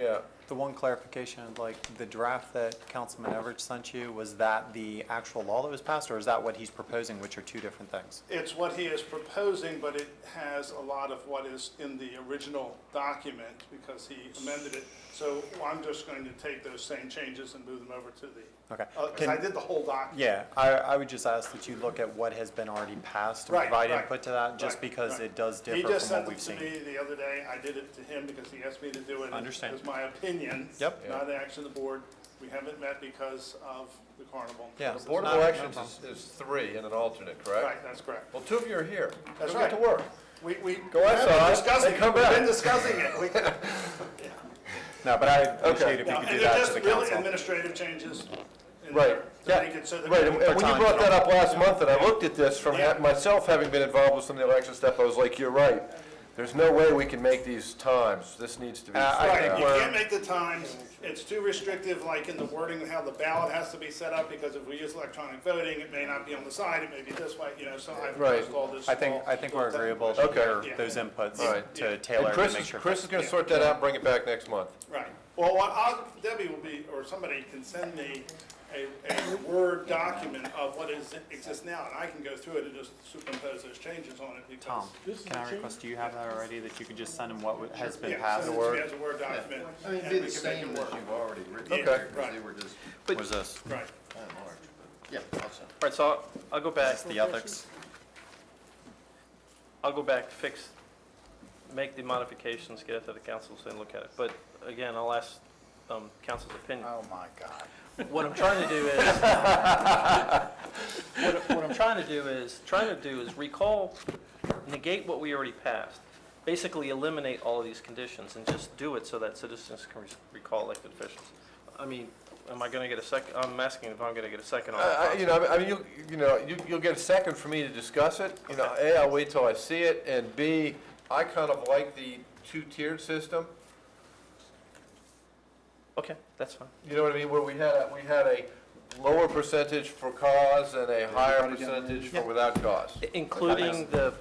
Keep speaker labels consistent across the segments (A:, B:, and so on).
A: Yeah,
B: The one clarification, like, the draft that Councilman Everidge sent you, was that the actual law that was passed, or is that what he's proposing, which are two different things?
C: It's what he is proposing, but it has a lot of what is in the original document because he amended it. So I'm just going to take those same changes and move them over to the,
B: Okay.
C: because
B: Can-
C: I did the whole document.
B: Yeah, I, I would just ask that you look at what has been already passed and
C: Right,
B: provide
C: right,
B: input to that, just
C: right,
B: because
C: right.
B: it does
C: He
B: differ
C: just
B: from what
C: sent it
B: we've
C: to
B: seen.
C: me the other day. I did it to him because he asked me to do it.
B: Understand.
C: It's my opinion.
B: Yep.
C: Not the action of the board. We haven't met because of the carnival.
B: Yeah.
C: Because
B: It's
A: Board of
B: not- no
A: Elections
B: problem.
A: is, is three and an alternate,
C: it's-
A: correct?
C: Right, that's correct.
A: Well, two of you are here.
C: That's
A: Go get
C: right.
A: to work.
C: We, we.
A: Go
C: we've
A: outside,
C: been discussing
A: then
C: it.
A: come
C: We've
A: back.
C: been discussing it. We-
B: No, but I appreciate if you
C: No,
B: could
C: And
B: do
C: they're
B: that to
C: just
B: the
C: really
B: council.
C: administrative changes. in
A: Right,
C: there to
A: yeah,
C: make it so that
A: right,
C: we-
A: and and when you
B: time,
A: brought
B: you
A: that
B: know.
A: up last month, and I looked at this from ha-
C: Yeah.
A: myself having been involved with some of the election stuff, I was like, you're right. There's no way we can make these times, this needs to be.
B: Uh, I
A: sorted
B: think
A: out.
C: Right, you
B: we're-
C: can't make the times, it's too restrictive, like in the wording of how the ballot has to be set up, because if we use electronic voting, it may not be on the side, it may be this way, you know, so I've
A: Right.
C: proposed all this.
B: I think,
C: small-
B: I think we're
C: small
B: agreeable to
A: Okay.
B: hear
C: Yeah.
B: those inputs
A: All right.
B: to
A: And
B: Taylor to
A: Chris
B: make
A: is,
B: sure.
A: Chris is gonna sort that out and bring it back next month.
C: Right, well, what I'll, Debbie will be, or somebody can send me a, a Word document of what is, exists now, and I can go through it and just superimpose those changes on it, because.
B: Tom, Um, can I request, do you have that already, that you could just send him what w- has been
C: Yeah,
B: passed?
C: send it to me as a Word document.
D: I mean,
C: and
D: it'd be
C: we can make
D: the
C: it
D: same as
C: work.
D: you've already written
C: Yeah,
D: it there, 'cause
C: right.
D: they were just
B: What is this? Is
C: Right,
D: kind of large, but, yeah, awesome.
E: All right, so I'll- I'll go back,
B: this the ethics?
E: I'll go back, fix, make the modifications, get it to the council, so they look at it. But again, I'll ask um, council's opinion.
D: Oh, my God.
E: What I'm trying to do is, what what I'm trying to do is, trying to do is recall, negate what we already passed. Basically eliminate all of these conditions and just do it so that citizens can re- recall elected officials. I mean, am I going to get a second, I'm asking if I'm going to get a second on that.
C: Uh,
A: I- I- Uh, You know, I mean, you, you know, you, you'll get a second for me to discuss it. You know, A, I'll wait till I see it, and B, I kind of like the two-tiered system.
E: Okay, that's fine.
A: You know what I mean? Where we had, a we had a lower percentage for cause and a higher percentage for without cause.
E: Including the,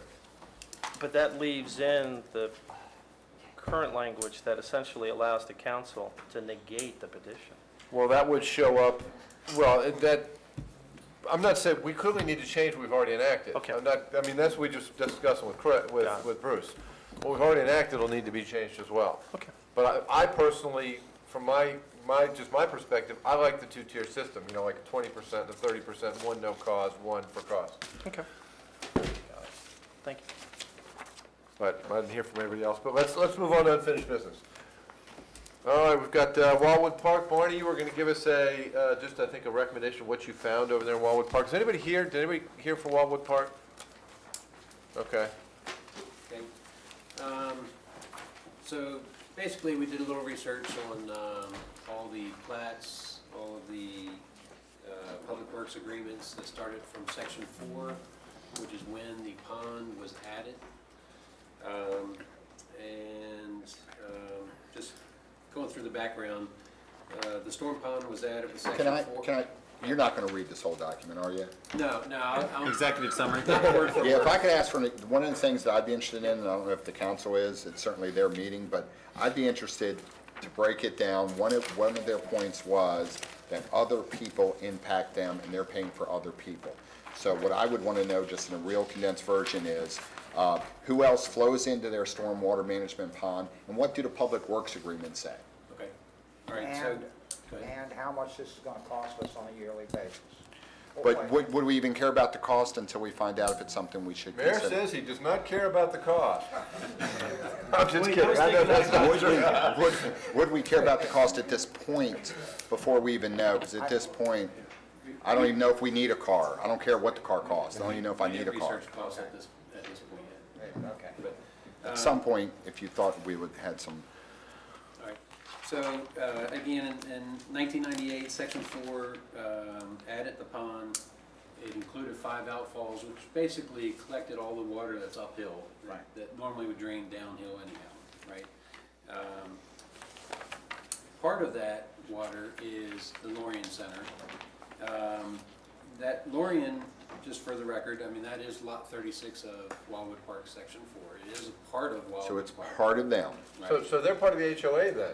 E: but that leaves in the current language that essentially allows the council to negate the petition.
A: Well, that would show up, well, it- that, I'm not saying, we clearly need to change what we've already enacted.
E: Okay.
A: I'm not, I mean, that's what we just discussed with, Cra- with,
E: Got it.
A: with Bruce. What we've already enacted will need to be changed as well.
E: Okay.
A: But I, I personally, from my, my, just my perspective, I like the two-tier system, you know, like twenty percent to thirty percent, one no cause, one for cause.
E: Okay. Thank you.
A: But I didn't hear from everybody else, but let's, let's move on to unfinished business. All right, we've got uh, Wildwood Park. Barney, you were gonna give us a, uh, just, I think, a recommendation of what you found over there in Wildwood Park. Is anybody here, did anybody here for Wildwood Park? Okay.
F: thing. Um, So basically, we did a little research on um, all the plats, all of the uh, public works agreements that started from section four, which is when the pond was added. Um, And um, just going through the background, uh, the storm pond was added with section
D: Can I,
F: four.
D: can I, you're not gonna read this whole document, are you?
F: No, no, I'll- I'll,
B: Executive summary?
F: not word for
D: Yeah,
F: word.
D: if I could ask for, an- one of the things that I'd be interested in, and I don't know if the council is, it's certainly their meeting, but I'd be interested to break it down. One of, one of their points was that other people impact them and they're paying for other people. So what I would want to know, just in a real condensed version, is uh, who else flows into their stormwater management pond? And what do the public works agreements say?
F: Okay, all right, so,
G: And,
F: go ahead.
G: and how much this is gonna cost us on a yearly basis.
A: Oh,
D: But would, would we even care about the cost until we find out if it's something we should
A: Mayor
D: consider?
A: says he does not care about the cost. I'm just kidding. I know
F: thinking
A: that's not
D: Would we,
A: true.
D: would, would we care about the cost at this point before we even know? Because at this point, I don't even know if we need a car. I don't care what the car costs. I don't even know if I need a car.
F: Research costs at this, at this point yet.
G: Okay.
D: At some point, if you thought we would had some,
F: All right. So, uh, again, in- in 1998, Section 4 um, added the pond. It included five outfalls, which basically collected all the water that's uphill. Right. That normally would drain downhill anyhow, right? Um, Part of that water is the Lorien Center. Um, That Lorien, just for the record, I mean, that is Lot 36 of Wildwood Park, Section 4. It is a part of Wildwood Park.
D: so it's part of them.
F: right?
A: So, so they're part of the HOA then?